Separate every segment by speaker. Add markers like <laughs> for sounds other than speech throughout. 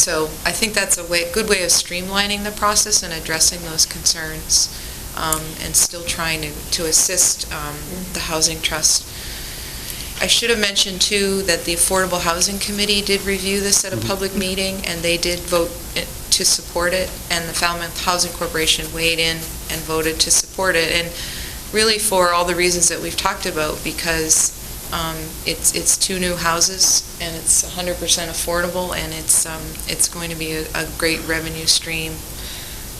Speaker 1: So I think that's a way, good way of streamlining the process and addressing those concerns, um, and still trying to, to assist um, the Housing Trust. I should have mentioned, too, that the Affordable Housing Committee did review this at a public meeting, and they did vote it- to support it, and the Falmouth Housing Corporation weighed in and voted to support it, and really for all the reasons that we've talked about, because um, it's, it's two new houses, and it's 100% affordable, and it's, um, it's going to be a a great revenue stream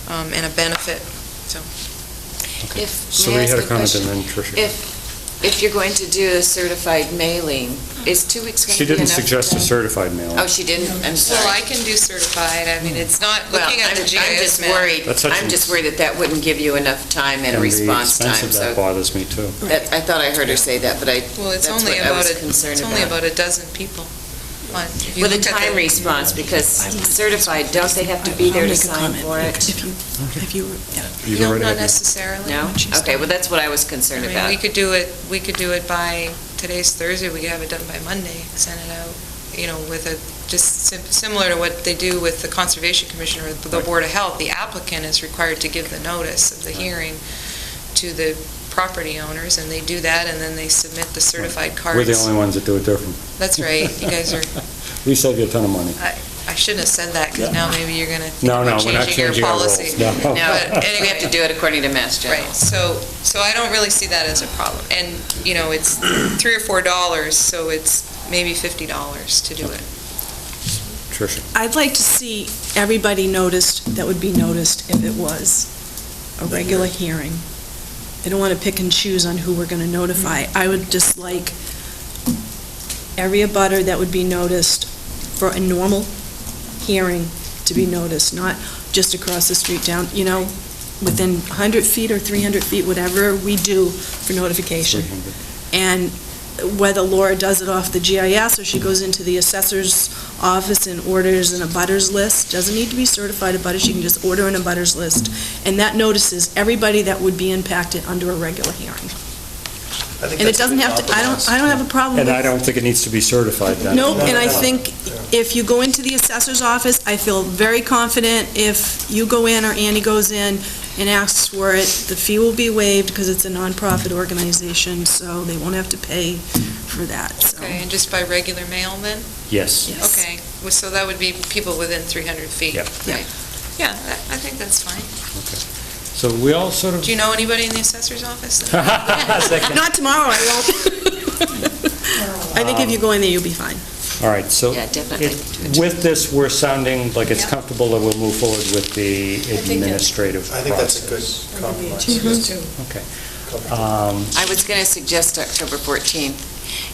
Speaker 1: um, and a benefit, so.
Speaker 2: Okay.
Speaker 3: If,
Speaker 2: So
Speaker 3: may I
Speaker 2: we
Speaker 3: ask
Speaker 2: had
Speaker 3: a
Speaker 2: a comment and
Speaker 3: question?
Speaker 2: then Tricia.
Speaker 3: If, if you're going to do a certified mailing, is two weeks going to
Speaker 2: She
Speaker 3: be enough?
Speaker 2: didn't suggest a
Speaker 3: time?
Speaker 2: certified mailing.
Speaker 3: Oh, she didn't? I'm sorry.
Speaker 1: Well, I can do certified, I mean, it's not,
Speaker 3: Well,
Speaker 1: looking at the
Speaker 3: I'm-
Speaker 1: GIS map.
Speaker 3: I'm just worried,
Speaker 2: That's such
Speaker 3: I'm
Speaker 2: an-
Speaker 3: just worried that that wouldn't give you enough time and
Speaker 2: the
Speaker 3: response time.
Speaker 2: expense of that
Speaker 3: So
Speaker 2: bothers me, too.
Speaker 3: that- I thought I heard her say that, but I,
Speaker 1: Well, it's
Speaker 3: That's
Speaker 1: only
Speaker 3: what I
Speaker 1: about,
Speaker 3: was
Speaker 1: a-
Speaker 3: concerned
Speaker 1: it's only
Speaker 3: about.
Speaker 1: about a dozen people. Well, if you
Speaker 3: with a
Speaker 1: look at the-
Speaker 3: time response, because certified, don't they have to be there to sign for it?
Speaker 4: If you,
Speaker 2: You've
Speaker 1: No,
Speaker 2: already
Speaker 1: Not
Speaker 2: had your-
Speaker 1: necessarily.
Speaker 3: No? Okay, well, that's what I was concerned
Speaker 1: I mean,
Speaker 3: about.
Speaker 1: we could do it, we could do it by, today's Thursday, we could have it done by Monday, send it out, you know, with a, just sim- similar to what they do with the Conservation Commission or the Board of Health, the applicant is required to give the notice of the hearing to the property owners, and they do that, and then they submit the certified cards.
Speaker 2: We're the only ones that do it different.
Speaker 1: That's right, you guys are,
Speaker 2: <laughs> We save you a ton of money.
Speaker 1: I shouldn't have said that, because now maybe you're going to think
Speaker 2: No, no,
Speaker 1: about
Speaker 2: we're not
Speaker 1: changing
Speaker 2: changing
Speaker 1: your
Speaker 2: our rules.
Speaker 1: policy.
Speaker 2: No.
Speaker 3: No,
Speaker 2: Oh.
Speaker 1: But
Speaker 3: we have to do it according to Mass General.
Speaker 1: Right, so, so I don't really see that as a problem. And, you know,
Speaker 2: <clears throat>
Speaker 1: it's three or four dollars, so it's maybe fifty dollars to do it.
Speaker 2: Tricia,
Speaker 4: I'd like to see everybody noticed, that would be noticed if it was a regular hearing. I don't want to pick and choose on who we're going to notify. I would just like every abutter that would be noticed for a normal hearing to be noticed, not just across the street down, you know, within 100 feet or 300 feet, whatever we do for notification.
Speaker 2: 300.
Speaker 4: And whether Laura does it off the GIS or she goes into the assessor's office and orders an abutters list, doesn't need to be certified abutters, she can just order an abutters list. And that notices everybody that would be impacted under a regular hearing. And it doesn't have to, I don't, I don't have a problem with...
Speaker 2: And I don't think it needs to be certified, then.
Speaker 4: Nope, and I think if you go into the assessor's office, I feel very confident if you go in or Andy goes in and asks for it, the fee will be waived because it's a nonprofit organization, so they won't have to pay for that, so.
Speaker 1: Okay, and just by regular mail then?
Speaker 2: Yes.
Speaker 4: Yes.
Speaker 1: Okay, well, so that would be people within three hundred feet,
Speaker 2: Yeah.
Speaker 1: right? Yeah, I I think that's fine.
Speaker 2: So we all sort of...
Speaker 1: Do you know anybody in the assessor's office?
Speaker 2: <laughs> Second.
Speaker 4: Not tomorrow, I
Speaker 1: <laughs>
Speaker 4: won't. I think if you go in there, you'll be fine.
Speaker 2: All right, so
Speaker 3: Yeah, definitely.
Speaker 2: it- with this, we're sounding like it's
Speaker 1: Yeah.
Speaker 2: comfortable that we'll move forward with the
Speaker 1: that's-
Speaker 2: administrative
Speaker 5: I
Speaker 2: process.
Speaker 5: think that's a good compromise.
Speaker 2: good... Um,
Speaker 3: I was going to suggest October 14th.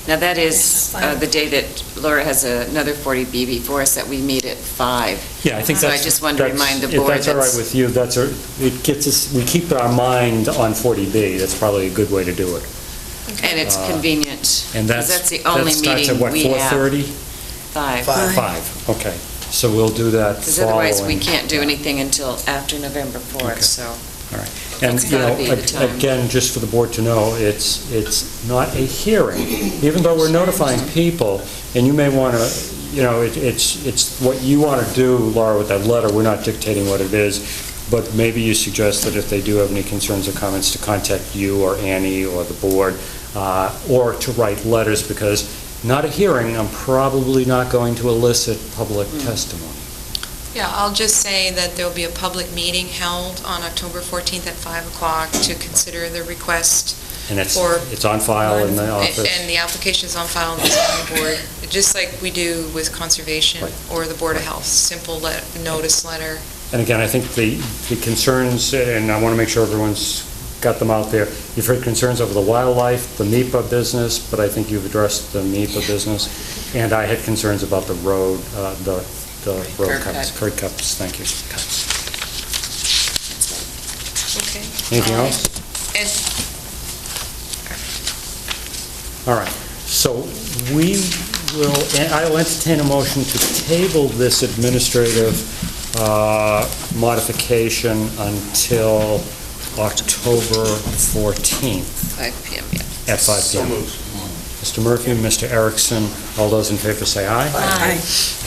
Speaker 3: Now, that is uh, the day that Laura has another 40B before us, that we meet at 5.
Speaker 2: Yeah, I think
Speaker 3: So I
Speaker 2: that's...
Speaker 3: just wanted to
Speaker 2: that's-
Speaker 3: remind the
Speaker 2: If
Speaker 3: board
Speaker 2: that's all right
Speaker 3: that's-
Speaker 2: with you, that's, a- it gets us, we keep our mind on 40B, that's probably a good way to do it.
Speaker 3: And it's
Speaker 2: Uh,
Speaker 3: convenient.
Speaker 2: And
Speaker 3: Because
Speaker 2: that's...
Speaker 3: that's the only meeting we
Speaker 2: That
Speaker 3: have.
Speaker 2: starts at what, 4:30?
Speaker 3: Five.
Speaker 5: Five.
Speaker 2: Five, okay. So we'll do that
Speaker 3: Because
Speaker 2: following...
Speaker 3: otherwise, we can't do anything until after November 4th,
Speaker 2: Okay.
Speaker 3: so.
Speaker 2: And,
Speaker 3: That's
Speaker 2: you know,
Speaker 3: gotta be the
Speaker 2: ag-
Speaker 3: time.
Speaker 2: again, just for the board to know, it's, it's not a hearing, even though we're notifying people, and you may want to, you know, it- it's, it's what you want to do, Laura, with that letter, we're not dictating what it is, but maybe you suggest that if they do have any concerns or comments, to contact you or Annie or the board, uh, or to write letters, because not a hearing, I'm probably not going to elicit public
Speaker 3: Mm.
Speaker 2: testimony.
Speaker 1: Yeah, I'll just say that there'll be a public meeting held on October fourteenth at five o'clock to consider the request
Speaker 2: And it's,
Speaker 1: Or-
Speaker 2: it's on file in the office.
Speaker 1: And the application's on file in the zoning board, just like we do with conservation
Speaker 2: Right.
Speaker 1: or the Board of Health, simple let- notice letter.
Speaker 2: And again, I think the, the concerns, and I want to make sure everyone's got them out there. You've heard concerns over the wildlife, the MIPA business, but I think you've addressed the MIPA business. And I had concerns about the road, uh, the, the road
Speaker 3: Curb
Speaker 2: cuts, curb cuts, thank you.
Speaker 1: Okay.
Speaker 2: Anything
Speaker 1: Um,
Speaker 2: else?
Speaker 1: And
Speaker 2: All right, so we will, and I'll entertain a motion to table this administrative uh, modification until October 14th
Speaker 3: Five PM, yeah.
Speaker 2: at 5
Speaker 5: So
Speaker 2: PM.
Speaker 5: moved.
Speaker 2: Mr. Murphy, Mr. Erickson, all those in favor say aye.
Speaker 4: Aye.